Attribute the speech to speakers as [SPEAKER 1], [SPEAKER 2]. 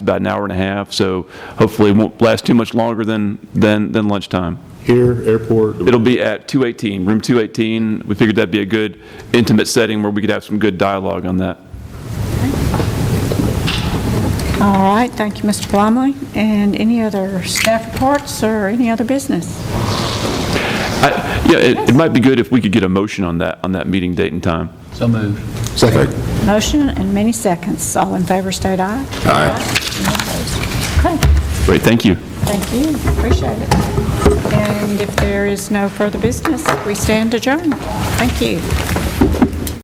[SPEAKER 1] about an hour and a half, so hopefully it won't last too much longer than, than, than lunchtime.
[SPEAKER 2] Here, airport,
[SPEAKER 1] It'll be at 218, room 218. We figured that'd be a good intimate setting where we could have some good dialogue on that.
[SPEAKER 3] All right, thank you, Mr. Blomley. And any other staff reports or any other business?
[SPEAKER 1] I- Yeah, it, it might be good if we could get a motion on that, on that meeting date and time.
[SPEAKER 4] So moved.
[SPEAKER 2] second.
[SPEAKER 3] Motion and many seconds. All in favor, state aye. Aye. Okay,
[SPEAKER 1] Great, thank you.
[SPEAKER 3] thank you, appreciate it. And if there is no further business, we stand adjourned. Thank you.